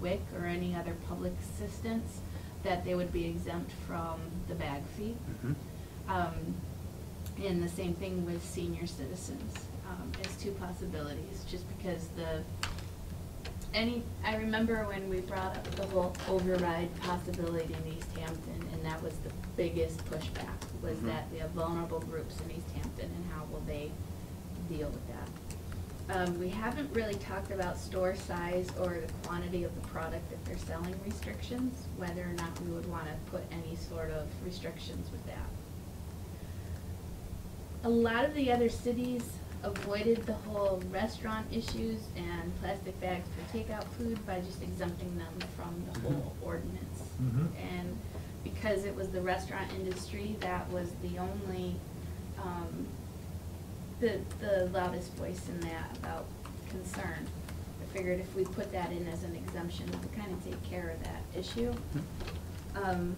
WIC or any other public assistance, that they would be exempt from the bag fee. Mhm. Um, And the same thing with senior citizens, um, as two possibilities, just because the, any, I remember when we brought up the whole override possibility in East Hampton, and that was the biggest pushback, was Mhm. that we have vulnerable groups in East Hampton, and how will they deal with that? Um, we haven't really talked about store size or the quantity of the product that they're selling restrictions, whether or not we would wanna put any sort of restrictions with that. A lot of the other cities avoided the whole restaurant issues and plastic bags for takeout food by just exempting them from the whole ordinance. Mhm. And because it was the restaurant industry, that was the only, um, the, the loudest voice in that about concern. I figured if we put that in as an exemption, we could kind of take care of that issue. Um,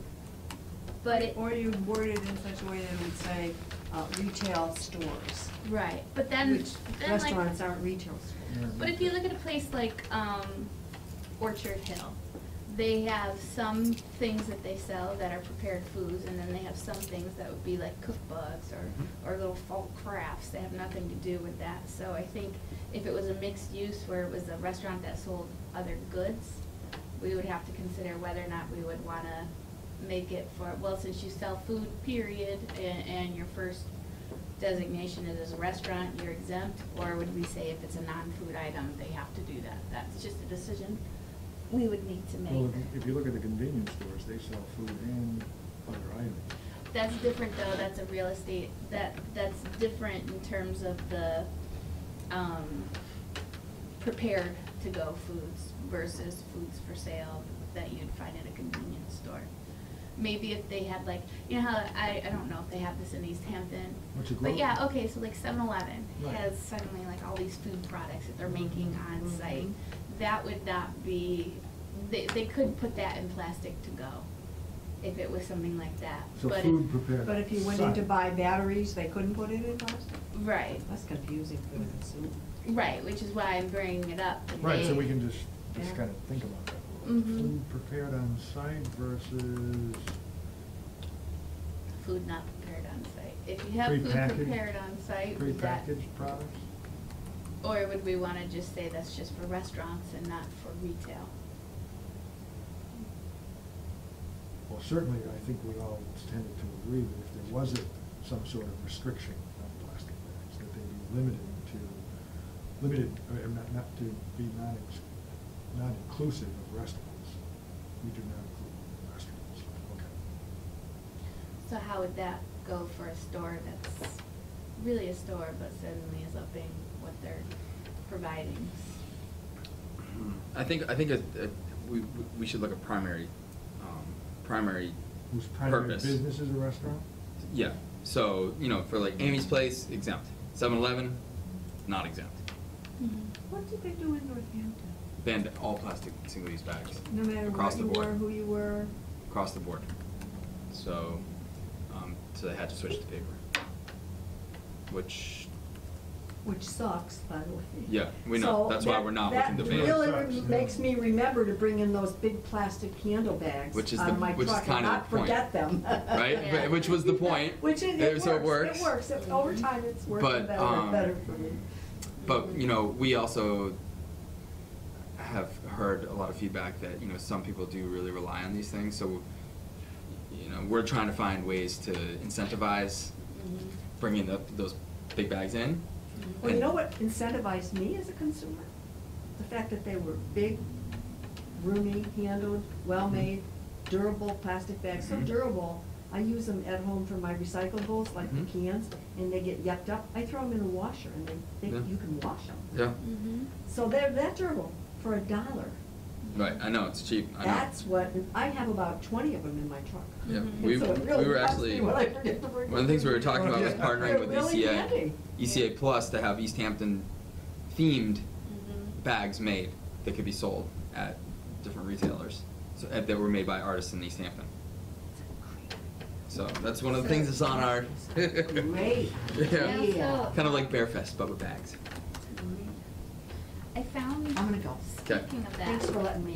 but it. Or you word it in such a way that it would say, uh, retail stores. Right, but then, Which then like, restaurants aren't retail stores. but if you look at a place like, um, Orchard Hill, they have some things that they sell that are prepared foods, and then they have some things that would be like cookbooks or, or little folk crafts that have nothing to do with that, so I think if it was a mixed use where it was a restaurant that sold other goods, we would have to consider whether or not we would wanna make it for, well, since you sell food, period, and, and your first designation is as a restaurant, you're exempt, or would we say if it's a non-food item, they have to do that? That's just a decision we would need to Well, make. if you- if you look at the convenience stores, they sell food and other items. That's different though, that's a real estate, that, that's different in terms of the, um, prepared to go foods versus foods for sale that you'd find at a convenience store. Maybe if they had like, you know how, I, I don't know if they have this in East Hampton. What's it But called? yeah, okay, so like seven eleven Right. Mm-hmm. has suddenly like all these food products that they're making on site. That would not be, they, they could put that in plastic to go if it was something like that. So But if- food prepared. But if you went in to Sorry. buy batteries, they couldn't put it in plastic? Right, That's confusing for the consumer. right, which is why I'm bringing it up. that Right, so they- we can just, Yeah. just kind of think about that. Mhm. Food prepared on site versus, Food not prepared on site. If you have food Prepackaged? prepared on site, would that, prepackaged products? or would we wanna just say that's just for restaurants and not for retail? Well, certainly, I think we all tended to agree that if there was a- some sort of restriction on plastic bags, that they be limited to, limited, or not, not to be not, ex- not inclusive of restaurants. We do not include restaurants, okay. So how would that go for a store that's really a store but suddenly is upping what they're providing? I think, I think it- it- we, we- we should look at primary, um, primary Whose primary purpose. business is a restaurant? Yeah, so, you know, for like Amy's Place, exempt. 7-Eleven, not exempt. What did they do in Northampton? Banned all plastic single-use bags. No matter across what the you board. were, who you were, Across the board. So, um, so they had to switch to paper. Which, which sucks, by the way. Yeah, we know. So That's why that- we're not looking to ban. That Sucks, really yeah. makes me remember to bring in those big plastic candle bags Which is the- out of my which is truck and kinda the not point, forget them. right? Yeah. But- Which was the point. Which it, Uh, it So it works, works. it works, It- over time it's working But, better and um, better for me. But, you know, we also have heard a lot of feedback that, you know, some people do really rely on these things, so, you know, we're trying to find ways to incentivize Mm-hmm. bringing the, those big bags in. Well, you know what incentivized me as a consumer? The fact that they were big, roomy, handled, well-made, Mm-hmm. durable plastic bags, so Mhm. durable. I use them at home for my recyclables, like the Mhm. cans, and they get yucked up. I throw them in the washer and they, they, Yeah. you can wash them. Yeah, Mm-hmm. So they're that durable for a dollar. right, I know, it's cheap, I know. That's what, I have about twenty of them in my truck. Yeah, Mhm. we, So it we really were helps actually, me one when I of forget to bring the things we were talking about was Yeah. partnering with E They're really ECA, handy. ECA Plus to have East Hampton themed bags made that could be sold at different retailers, so, uh, that were made by artists in East Hampton. So that's one of the things that's on our. Great. Yeah. Yeah. Kind of like Bearfest, but with bags. I found, I'm gonna go. speaking of that. Thanks for letting me